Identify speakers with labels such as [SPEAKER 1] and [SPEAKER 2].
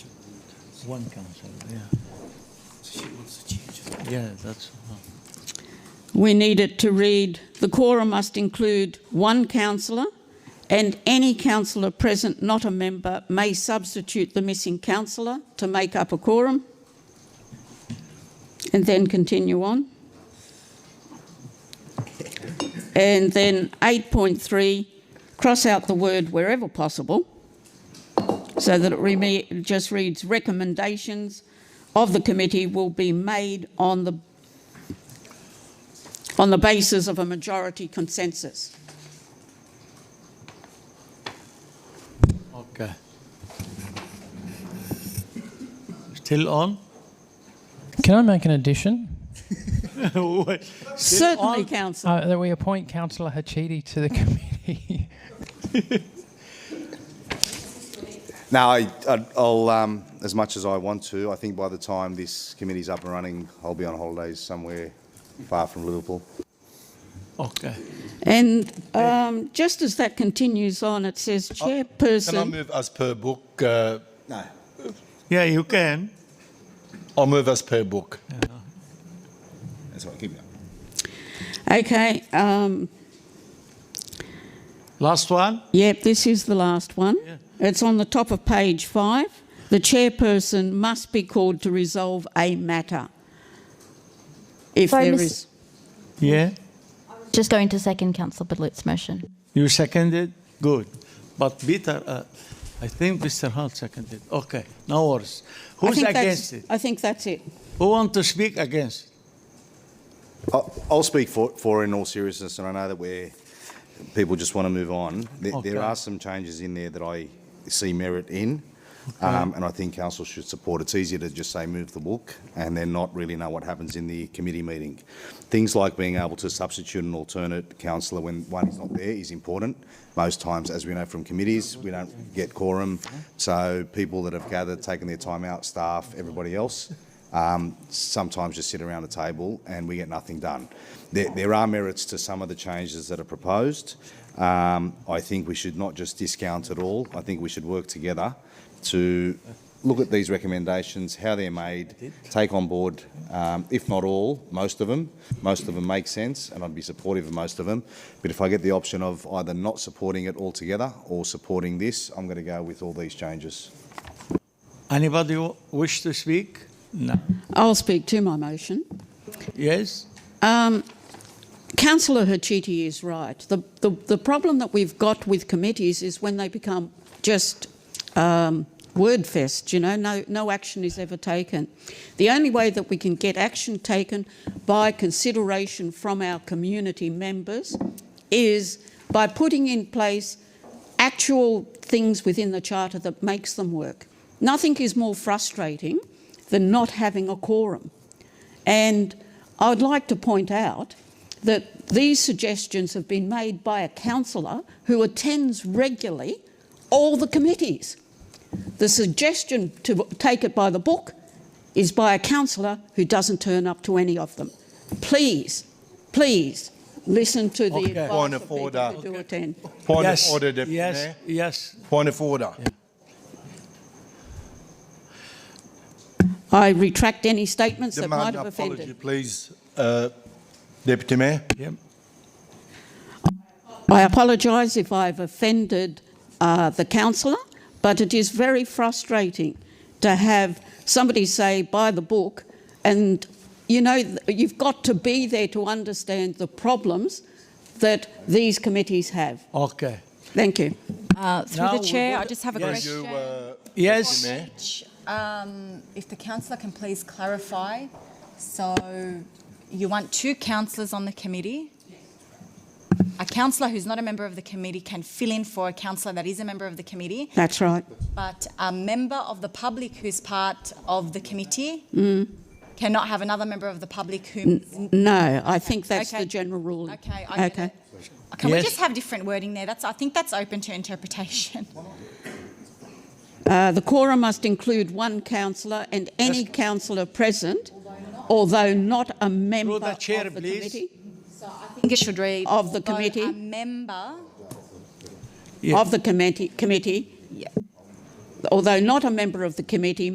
[SPEAKER 1] One council, yeah.
[SPEAKER 2] She wants to change it.
[SPEAKER 1] Yeah, that's, oh,
[SPEAKER 3] We need it to read, "The quorum must include one councillor, and any councillor present not a member may substitute the missing councillor to make up a quorum." And then continue on. And then 8.3, cross out the word "wherever possible," so that it reme- just reads, "Recommendations of the committee will be made on the on the basis of a majority consensus.
[SPEAKER 1] okay. Still on?
[SPEAKER 4] Can I make an addition?
[SPEAKER 1] Wait,
[SPEAKER 3] Certainly,
[SPEAKER 1] on-
[SPEAKER 3] councillor.
[SPEAKER 4] Uh, that we appoint Councillor Hachidi to the committee.
[SPEAKER 5] No, I, I- I'll, um, as much as I want to, I think by the time this committee's up and running, I'll be on holidays somewhere far from Liverpool.
[SPEAKER 1] Okay,
[SPEAKER 3] And um, just as that continues on, it says
[SPEAKER 1] Oh,
[SPEAKER 2] Can I
[SPEAKER 3] chairperson.
[SPEAKER 2] move as per book? Uh,
[SPEAKER 5] No.
[SPEAKER 1] yeah, you can.
[SPEAKER 2] I'll move as per book.
[SPEAKER 5] That's right, keep going.
[SPEAKER 3] Okay, um,
[SPEAKER 1] Last one?
[SPEAKER 3] yep, this is the last one.
[SPEAKER 1] Yeah.
[SPEAKER 3] It's on the top of page five. The chairperson must be called to resolve a matter. If
[SPEAKER 6] Sorry,
[SPEAKER 3] there
[SPEAKER 6] Miss-
[SPEAKER 3] is,
[SPEAKER 1] Yeah,
[SPEAKER 6] Just going to second Councillor Balut's motion.
[SPEAKER 1] you seconded, good. But Peter, uh, I think Mr. Hunt seconded, okay, no worries.
[SPEAKER 3] I
[SPEAKER 1] Who's
[SPEAKER 3] think that's-
[SPEAKER 1] against it?
[SPEAKER 3] I think that's it.
[SPEAKER 1] Who want to speak against?
[SPEAKER 5] I'll, I'll speak for, for it in all seriousness, and I know that we're, people just want to move on. There,
[SPEAKER 1] Okay.
[SPEAKER 5] there are some changes in there that I see merit in, um, and I think council should support. It's easier to just say move the book and then not really know what happens in the committee meeting. Things like being able to substitute an alternate councillor when one is not there is important. Most times, as we know from committees, we don't get quorum, so people that have gathered, taken their time out, staff, everybody else, um, sometimes just sit around a table and we get nothing done. There, there are merits to some of the changes that are proposed. Um, I think we should not just discount it all. I think we should work together to look at these recommendations, how they're made, take on board, um, if not all, most of them. Most of them make sense, and I'd be supportive of most of them. But if I get the option of either not supporting it altogether or supporting this, I'm going to go with all these changes.
[SPEAKER 1] Anybody w- wish to speak? No.
[SPEAKER 3] I'll speak to my motion.
[SPEAKER 1] Yes?
[SPEAKER 3] Councillor Hachiti is right. The, the, the problem that we've got with committees is when they become just um, word fest, you know, no, no action is ever taken. The only way that we can get action taken by consideration from our community members is by putting in place actual things within the charter that makes them work. Nothing is more frustrating than not having a quorum. And I would like to point out that these suggestions have been made by a councillor who attends regularly all the committees. The suggestion to take it by the book is by a councillor who doesn't turn up to any of them. Please, please listen to the
[SPEAKER 1] Okay.
[SPEAKER 3] advice
[SPEAKER 2] Point
[SPEAKER 3] of
[SPEAKER 2] of
[SPEAKER 3] people
[SPEAKER 2] order.
[SPEAKER 3] who do attend.
[SPEAKER 2] Point
[SPEAKER 1] Yes,
[SPEAKER 2] of order, Deputy
[SPEAKER 1] Yes,
[SPEAKER 2] Mayor.
[SPEAKER 1] yes.
[SPEAKER 2] Point of order.
[SPEAKER 3] I retract any statements that might
[SPEAKER 2] Demand
[SPEAKER 3] have
[SPEAKER 2] apology,
[SPEAKER 3] offended.
[SPEAKER 2] please, uh, Deputy Mayor.
[SPEAKER 1] Yep.
[SPEAKER 3] I apologise if I've offended uh, the councillor, but it is very frustrating to have somebody say by the book, and you know, th- you've got to be there to understand the problems that these committees have.
[SPEAKER 1] Okay.
[SPEAKER 3] Thank you.
[SPEAKER 7] Uh, Through
[SPEAKER 1] Now
[SPEAKER 7] the
[SPEAKER 1] we
[SPEAKER 7] chair,
[SPEAKER 1] would-
[SPEAKER 7] I just have a
[SPEAKER 1] Yes.
[SPEAKER 2] You,
[SPEAKER 7] question.
[SPEAKER 2] uh,
[SPEAKER 1] Yes.
[SPEAKER 2] Deputy Mayor.
[SPEAKER 7] Which, um, if the councillor can please clarify, so you want two councillors on the committee? A councillor who's not a member of the committee can fill in for a councillor that is a member of the committee,
[SPEAKER 3] That's right.
[SPEAKER 7] but a member of the public who's part of the committee cannot have another member of the public who.
[SPEAKER 3] Mm. No, I think that's
[SPEAKER 7] Okay.
[SPEAKER 3] the general ruling.
[SPEAKER 7] Okay, I get
[SPEAKER 3] okay.
[SPEAKER 7] it. Can we
[SPEAKER 1] Yes.
[SPEAKER 7] just have different wording there? That's, I think that's open to interpretation.
[SPEAKER 3] Uh, the quorum must include one councillor and any councillor present, although not a member
[SPEAKER 1] the chair,
[SPEAKER 3] of the
[SPEAKER 1] please.
[SPEAKER 3] committee.
[SPEAKER 7] I think it should read.
[SPEAKER 3] Of the
[SPEAKER 7] although
[SPEAKER 3] committee.
[SPEAKER 7] A member
[SPEAKER 1] Yeah.
[SPEAKER 3] of the committee, committee
[SPEAKER 7] Yeah.
[SPEAKER 3] although not a member of the committee,